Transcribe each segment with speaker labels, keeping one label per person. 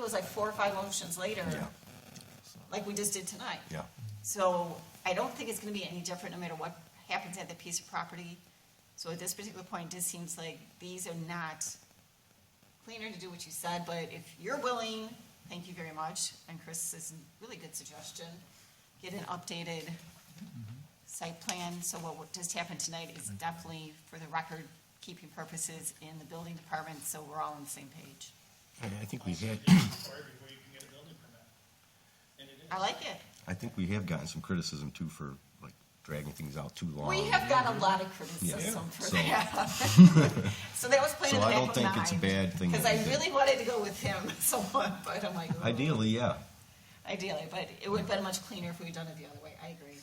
Speaker 1: was like four or five motions later,
Speaker 2: Yeah.
Speaker 1: like we just did tonight.
Speaker 2: Yeah.
Speaker 1: So I don't think it's gonna be any different no matter what happens at the piece of property. So at this particular point, it just seems like these are not cleaner to do what you said, but if you're willing, thank you very much. And Chris's really good suggestion, get an updated site plan. So what just happened tonight is
Speaker 2: Mm-hmm.
Speaker 1: definitely for the record keeping purposes in the building department, so we're all on the same page.
Speaker 2: And I think we've had,
Speaker 3: Required before you can get a building permit. And it is.
Speaker 1: I like it.
Speaker 2: I think we have gotten some criticism too for like dragging things out too long.
Speaker 1: We have got a lot of criticism
Speaker 2: Yeah.
Speaker 1: for
Speaker 2: So-
Speaker 1: that. So that was playing in the
Speaker 2: So I
Speaker 1: back
Speaker 2: don't
Speaker 1: of my
Speaker 2: think
Speaker 1: mind.
Speaker 2: it's a bad thing.
Speaker 1: Because
Speaker 2: that
Speaker 1: I
Speaker 2: we did.
Speaker 1: really wanted to go with him somewhat, but I'm like.
Speaker 2: Ideally, yeah.
Speaker 1: Ideally, but it would have been much cleaner if we'd done it the other way, I agree.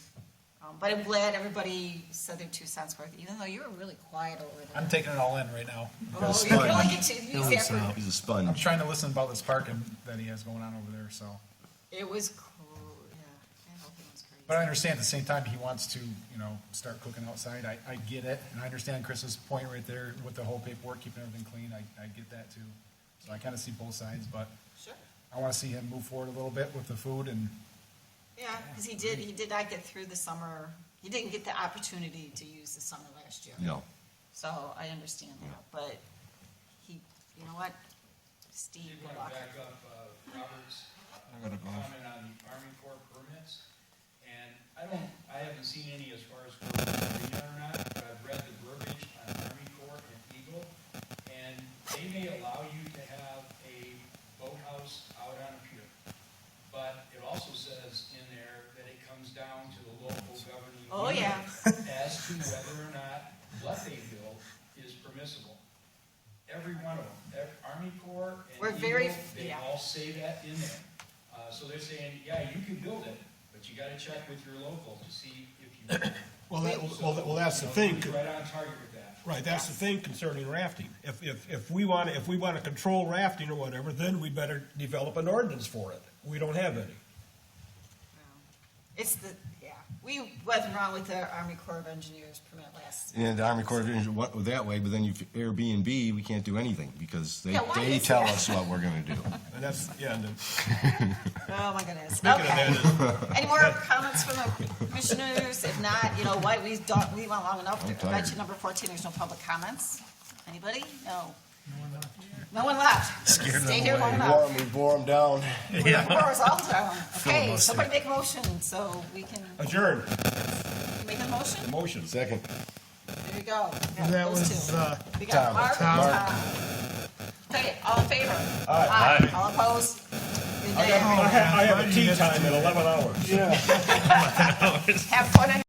Speaker 1: Um, But I'm glad everybody said their two cents worth, even though you were really quiet over there.
Speaker 4: I'm taking it all in right now.
Speaker 1: Oh,
Speaker 2: That's
Speaker 1: you're
Speaker 2: fine.
Speaker 1: really good to use that for-
Speaker 2: He's a
Speaker 4: I'm
Speaker 2: sponge.
Speaker 4: trying to listen about this parking that he has going on over there, so.
Speaker 1: It was cool, yeah, that whole thing was crazy.
Speaker 4: But I understand at the same time, he wants to, you know, start cooking outside. I, I get it. And I understand Chris's point right there with the whole paperwork, keeping everything clean. I, I get that too. So I kind of see both sides, but
Speaker 1: Sure,
Speaker 4: I want to see him move forward a little bit with the food and,
Speaker 1: yeah, because he did, he did not get through the summer, he didn't get the opportunity to use the summer last year.
Speaker 2: No.
Speaker 1: So I understand that, but he, you know what? Steve,
Speaker 3: You're
Speaker 1: good
Speaker 3: going
Speaker 1: luck.
Speaker 3: back up, uh, Robert's comment on the Army Corps permits. And I don't, I haven't seen any as far as whether they are or not, but I've read the verbiage on Army Corps and Eagle. And they may allow you to have a boathouse out on a pier. But it also says in there that it comes down to the local governing.
Speaker 1: Oh,
Speaker 3: unit
Speaker 1: yeah.
Speaker 3: As to whether or not what they build is permissible. Every one of them, ev- Army Corps and
Speaker 1: We're very-
Speaker 3: Eagle, they
Speaker 1: yeah.
Speaker 3: all say that in there. Uh, so they're saying, yeah, you can build it, but you gotta check with your local to see if you.
Speaker 5: Well, that, well, that- well, that's the thing,
Speaker 3: So, you know, Right on target with that.
Speaker 5: right, that's the thing concerning rafting. If, if, if we want, to if we want to control rafting or whatever, then we better develop an ordinance for it. We don't have any.
Speaker 1: It's the, yeah, we wasn't wrong with the Army Corps of Engineers permit last.
Speaker 2: And the Army Corps of Engineers, what, that way, but then you Airbnb, we can't do anything because they,
Speaker 1: Yeah, why
Speaker 2: they
Speaker 1: is
Speaker 2: tell
Speaker 1: that?
Speaker 2: us what we're gonna do.
Speaker 5: And that's, yeah, and then
Speaker 1: Oh, my goodness,
Speaker 5: speaking of
Speaker 1: okay.
Speaker 5: that,
Speaker 1: Any more comments from the commissioners? If not, you know what, we don't, we went long enough.
Speaker 2: I'm
Speaker 1: I bet
Speaker 2: tired.
Speaker 1: you number fourteen, there's no public comments. Anybody? No. No one left. Stay here long enough.
Speaker 2: we bore them down.
Speaker 1: We're we're all down. Okay,
Speaker 5: Filibuster.
Speaker 1: somebody make a motion so we can
Speaker 5: adjourn,
Speaker 1: make a motion.
Speaker 5: motion.
Speaker 2: Second.
Speaker 1: There you go. Yeah,
Speaker 6: That
Speaker 1: those
Speaker 6: was,
Speaker 1: two.
Speaker 6: uh,
Speaker 1: We got
Speaker 2: Tom.
Speaker 1: Mark and
Speaker 2: Mark.
Speaker 1: Tom. Okay, all in favor? Aye. All opposed? Good day.
Speaker 5: I have a tea time at eleven hours.
Speaker 1: Have fun.